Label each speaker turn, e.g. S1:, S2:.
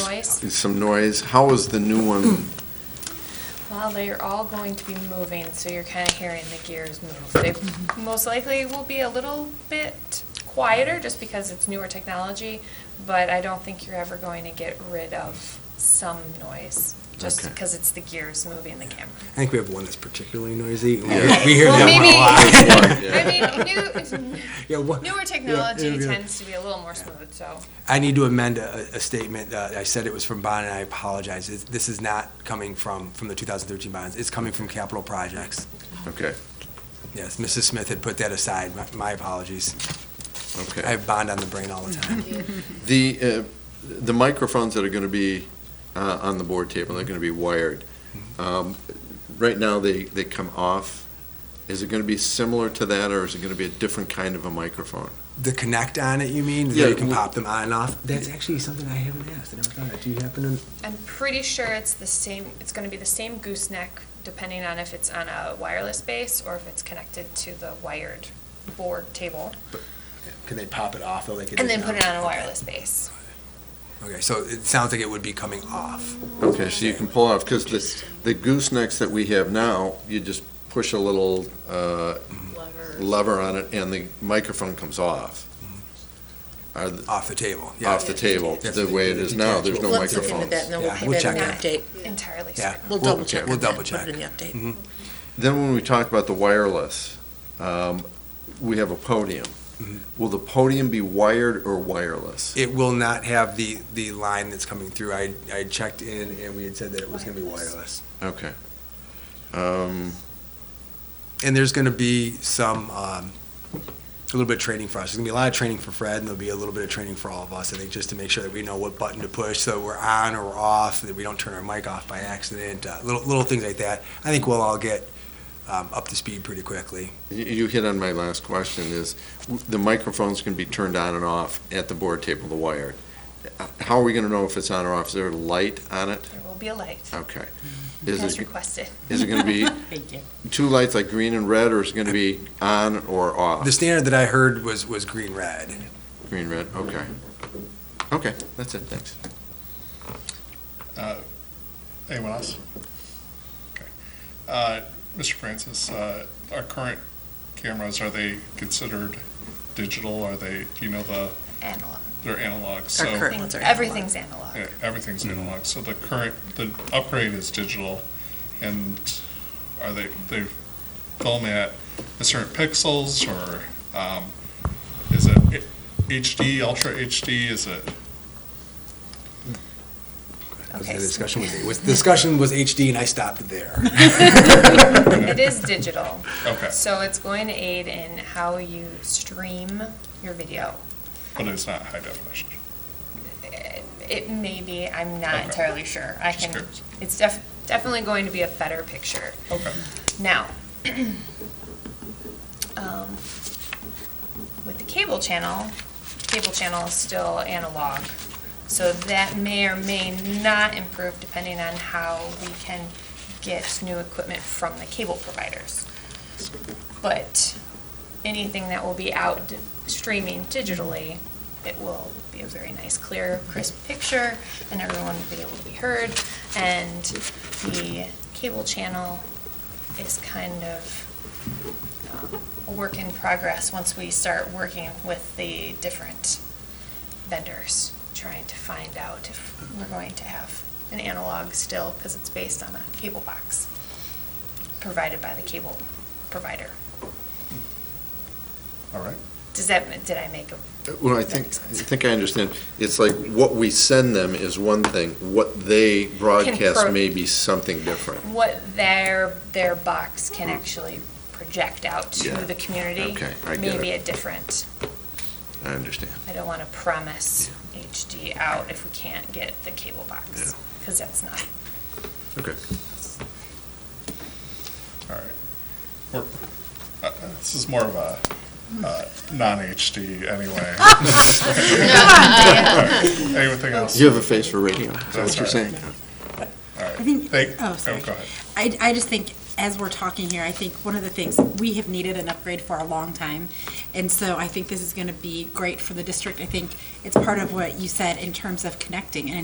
S1: noise.
S2: some noise. How is the new one?
S1: Well, they're all going to be moving, so you're kind of hearing the gears move. They most likely will be a little bit quieter just because it's newer technology, but I don't think you're ever going to get rid of some noise just
S2: Okay.
S1: because it's the gears moving the camera.
S3: I think we have one that's particularly noisy. We-
S2: Yeah.
S3: We hear
S1: Well,
S3: that one
S1: maybe-
S3: a lot.
S1: I mean, new,
S3: Yeah, what-
S1: newer
S3: yeah,
S1: technology
S3: yeah, yeah.
S1: tends to be a little more smooth, so.
S3: I need to amend a, a statement. Uh, I said it was from bond, and I apologize. It's, this is not coming from, from the 2013 bonds. It's coming from capital projects.
S2: Okay,
S3: Yes, Mrs. Smith had put that aside. My, my apologies. I
S2: okay.
S3: have bond on the brain all the time.
S2: The, uh, the microphones that are going to be uh, on the board table, they're going to be wired. Um, Right now, they, they come off. Is it going to be similar to that, or is it going to be a different kind of a microphone?
S3: The connect on it, you mean?
S2: Yeah,
S3: Yeah. You can
S2: w-
S3: pop them on and off. That's actually something I haven't asked. I never thought of. it. Do you happen to?
S1: I'm pretty sure it's the same, it's gonna be the same gooseneck, depending on if it's on a wireless base or if it's connected to the wired board table,
S3: Can they pop it off though? They could
S1: and
S3: just
S1: then put
S3: not-
S1: it on a wireless base.
S3: Okay, so it sounds like it would be coming off.
S2: Okay, so you can pull off, because the, the goosenecks that we have now, you just push a little uh, lever on it, and the microphone comes off. Are the-
S3: Off the table. Yeah.
S2: Off the table,
S3: Yes.
S2: the way it is now, there's no
S4: Let's look into
S2: microphones.
S4: that, and then
S3: Yeah,
S4: we'll
S3: we'll
S4: put that in the
S3: check
S4: update.
S1: Entirely
S3: Yeah.
S1: certain.
S4: We'll
S3: We'll-
S4: double check.
S3: we'll
S4: on that,
S3: double check.
S4: Put it in the update.
S2: Then when we talk about the wireless, um, we have a podium. Will the podium be wired or wireless?
S3: It will not have the, the line that's coming through. I, I checked in and we had said that it was gonna be wireless.
S2: Okay. Um,
S3: And there's gonna be some, um, a little bit of training for us. There's gonna be a lot of training for Fred and there'll be a little bit of training for all of us, I think, just to make sure that we know what button to push, so we're on or we're off, that we don't turn our mic off by accident, uh, little, little things like that. I think we'll all get, um, up to speed pretty quickly.
S2: You you hit on my last question is, w- the microphones can be turned on and off at the board table, the wired. Uh, How are we going to know if it's on or off? Is there a light on it?
S1: There will be a light,
S2: Okay.
S1: as
S2: Is it,
S1: requested.
S2: is it going to be two lights like green and red, or is it going to be on or off?
S3: The standard that I heard was, was green red.
S2: Green, red, okay. Okay, that's it, thanks.
S5: Uh, Anyone else? Okay. Uh, Mr. Francis, uh, our current cameras, are they considered digital? Are they, do you know, the,
S1: Analog.
S5: they're analog?
S4: Our
S5: so-
S4: current ones are analog.
S1: Everything's analog.
S5: Yeah, Everything's analog. So the current, the upgrade is digital, and are they, they film at a certain pixels, or um, is it HD, ultra HD? Is it,
S3: Was
S1: Okay,
S3: The
S1: so-
S3: discussion was, was, discussion was HD and I stopped there.
S1: It is digital.
S5: okay,
S1: So it's going to aid in how you stream your video.
S5: but it's not high definition?
S1: It- It may be, I'm not
S5: Okay.
S1: entirely sure. I
S5: Just
S1: can,
S5: curious.
S1: it's def- definitely going to be a better picture.
S5: Okay.
S1: Now, um, with the cable channel, cable channel is still analog, so that may or may not improve depending on how we can get new equipment from the cable providers. But anything that will be out di- streaming digitally, it will be a very nice, clear, crisp picture, and everyone will be able to be heard. And the cable channel is kind of um, a work in progress once we start working with the different vendors, trying to find out if we're going to have an analog still, because it's based on a cable box provided by the cable provider.
S5: All right.
S1: Does that, did I make a?
S2: Well, I
S1: that
S2: think, I
S1: makes sense?
S2: think I understand. It's like what we send them is one thing, what they broadcast
S1: pro-
S2: may be something different.
S1: What their, their box can actually project out to
S2: Yeah.
S1: the community.
S2: Okay, I get
S1: Maybe a
S2: it.
S1: different,
S2: I understand.
S1: I don't want to promise HD out if we can't get the cable box, because that's not
S2: Okay.
S5: All right. We're, uh, uh, this is more of a uh, non-HD anyway. All right. Anything else?
S2: You have a face for radio, is that
S5: That's
S2: what you're
S5: right.
S2: saying?
S5: All right.
S6: I think-
S5: Thank-
S6: oh, sorry.
S5: go ahead.
S6: I, I just think, as we're talking here, I think one of the things, we have needed an upgrade for a long time. And so I think this is going to be great for the district. I think it's part of what you said in terms of connecting and